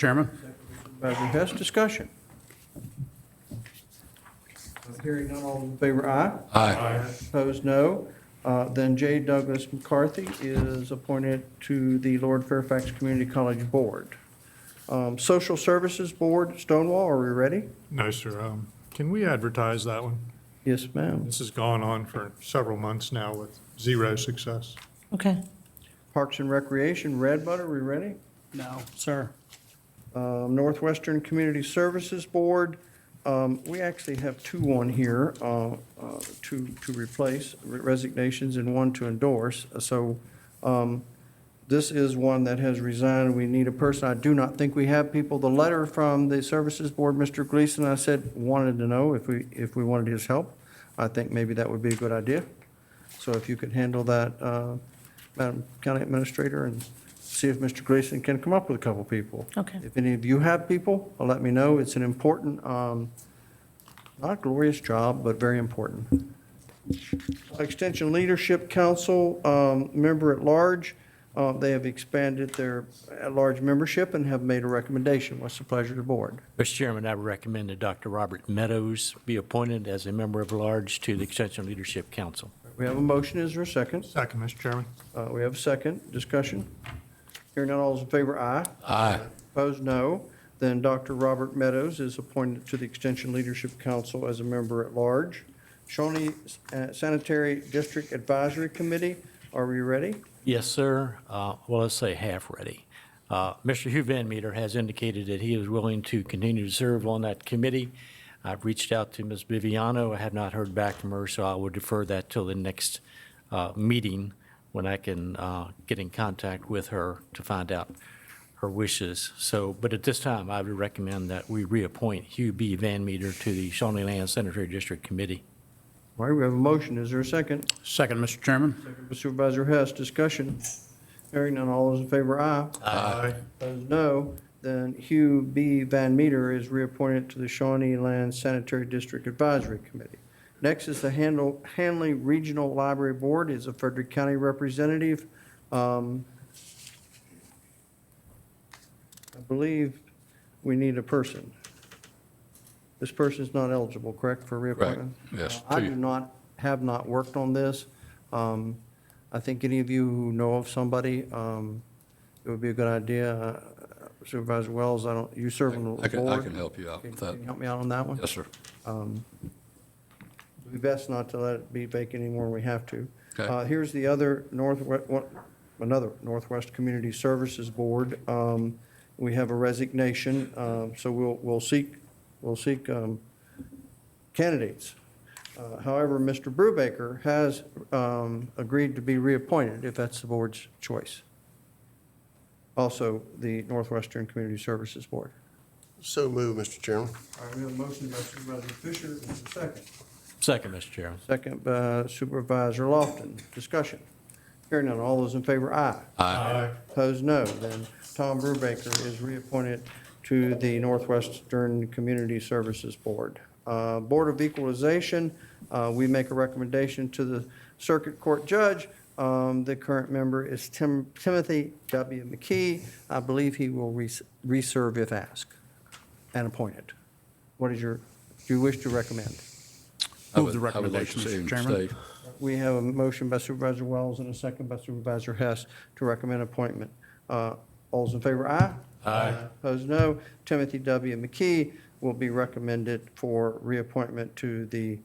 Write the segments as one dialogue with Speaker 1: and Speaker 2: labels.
Speaker 1: Chairman?
Speaker 2: Supervisor Hess, discussion. Hearing none, all in favor, aye.
Speaker 3: Aye.
Speaker 2: Opposed, no. Uh, Then J. Douglas McCarthy is appointed to the Lord Fairfax Community College Board. Um, Social Services Board, Stonewall, are we ready?
Speaker 3: No, sir. Um, Can we advertise that one?
Speaker 2: Yes, ma'am.
Speaker 3: This has gone on for several months now with zero success.
Speaker 4: Okay.
Speaker 2: Parks and Recreation, Red Bud, are we ready?
Speaker 1: No, sir.
Speaker 2: Um, Northwestern Community Services Board, um, we actually have two on here, uh, uh, to, to replace resignations and one to endorse. So um, this is one that has resigned, we need a person. I do not think we have people. The letter from the Services Board, Mr. Gleason, I said, wanted to know if we, if we wanted his help. I think maybe that would be a good idea. So if you could handle that, uh, Madam County Administrator, and see if Mr. Gleason can come up with a couple people.
Speaker 4: Okay.
Speaker 2: If any of you have people, uh, let me know. It's an important, um, not glorious job, but very important. Extension Leadership Council, um, member at large, uh, they have expanded their at-large membership and have made a recommendation. What's the pleasure of the board?
Speaker 5: Mr. Chairman, I would recommend that Dr. Robert Meadows be appointed as a member of large to the Extension Leadership Council.
Speaker 2: We have a motion. Is there a second?
Speaker 3: Second, Mr. Chairman.
Speaker 2: Uh, We have a second. Discussion. Hearing none, all those in favor, aye.
Speaker 5: Aye.
Speaker 2: Opposed, no. Then Dr. Robert Meadows is appointed to the Extension Leadership Council as a member at large. Shawnee uh, Sanitary District Advisory Committee, are we ready?
Speaker 5: Yes, sir. Uh, Well, let's say half-ready. Mr. Hugh Van Meter has indicated that he is willing to continue to serve on that committee. I've reached out to Ms. Viviano. I have not heard back from her, so I will defer that till the next uh, meeting when I can uh, get in contact with her to find out her wishes. So, but at this time, I would recommend that we reappoint Hugh B. Van Meter to the Shawnee Land Sanitary District Committee.
Speaker 2: All right, we have a motion. Is there a second?
Speaker 1: Second, Mr. Chairman?
Speaker 2: Supervisor Hess, discussion. Hearing none, all those in favor, aye.
Speaker 3: Aye.
Speaker 2: Opposed, no. Then Hugh B. Van Meter is reappointed to the Shawnee Land Sanitary District Advisory Committee. Next is the Handle- Hanley Regional Library Board is a Frederick County representative. Um, I believe we need a person. This person's not eligible, correct, for reappointment?
Speaker 6: yes,
Speaker 2: I
Speaker 6: two.
Speaker 2: do not, have not worked on this. Um, I think any of you who know of somebody, um, it would be a good idea. Uh, Supervisor Wells, I don't, you serve on
Speaker 6: I
Speaker 2: the
Speaker 6: can, I
Speaker 2: board.
Speaker 6: can help you out with that.
Speaker 2: Can you help me out on that one?
Speaker 6: Yes, sir.
Speaker 2: It'd be best not to let it be vacant anymore than we have to.
Speaker 6: Okay.
Speaker 2: Uh, Here's the other Northwest, another Northwest Community Services Board. Um, We have a resignation, um, so we'll, we'll seek, we'll seek um, candidates. Uh, However, Mr. Brubaker has um, agreed to be reappointed if that's the board's choice. Also, the Northwestern Community Services Board.
Speaker 7: So move, Mr. Chairman.
Speaker 2: All right, we have a motion by Supervisor Fisher, and a second.
Speaker 5: Second, Mr. Chairman.
Speaker 2: Second by Supervisor Lofton. Discussion. Hearing none. All those in favor, aye.
Speaker 3: Aye.
Speaker 2: Opposed, no. Then Tom Brubaker is reappointed to the Northwestern Community Services Board. Uh, Board of Equalization, uh, we make a recommendation to the Circuit Court Judge. Um, The current member is Tim- Timothy W. McKee. I believe he will res- reserve if asked and appointed. What is your, do you wish to recommend?
Speaker 6: I
Speaker 1: Move the
Speaker 6: would- I would like to
Speaker 1: recommendation,
Speaker 6: see
Speaker 1: Mr.
Speaker 6: him
Speaker 1: Chairman.
Speaker 6: stay.
Speaker 2: We have a motion by Supervisor Wells and a second by Supervisor Hess to recommend appointment. Uh, All those in favor, aye? Aye. Opposed, no. Timothy W. McKee will be recommended for reappointment to the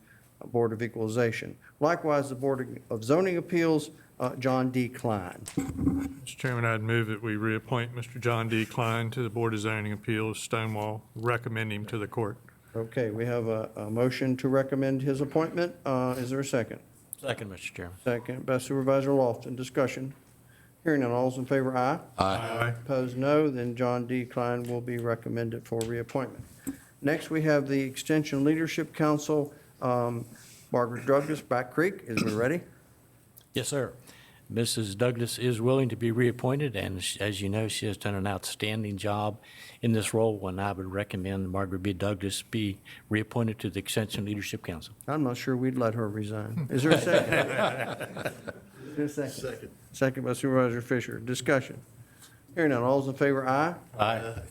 Speaker 2: Board of Equalization. Likewise, the Board of Zoning Appeals, uh, John D. Klein.
Speaker 3: Mr. Chairman, I'd move that we reappoint Mr. John D. Klein to the Board of Zoning Appeals, Stonewall, recommend him to the court.
Speaker 2: Okay, we have a, a motion to recommend his appointment. Uh, Is there a second?
Speaker 5: Second, Mr. Chairman.
Speaker 2: Second by Supervisor Lofton. Discussion. Hearing none, all those in favor, aye?
Speaker 3: Aye.
Speaker 2: Opposed, no. Then John D. Klein will be recommended for reappointment. Next, we have the Extension Leadership Council. Um, Margaret Douglas, Back Creek, is we ready?
Speaker 5: Yes, sir. Mrs. Douglas is willing to be reappointed, and sh- as you know, she has done an outstanding job in this role, and I would recommend Margaret B. Douglas be reappointed to the Extension Leadership Council.
Speaker 2: I'm not sure we'd let her resign. Is there a second? Is there a second? Second by Supervisor Fisher. Discussion. Hearing none. All's in favor, aye.
Speaker 5: Aye.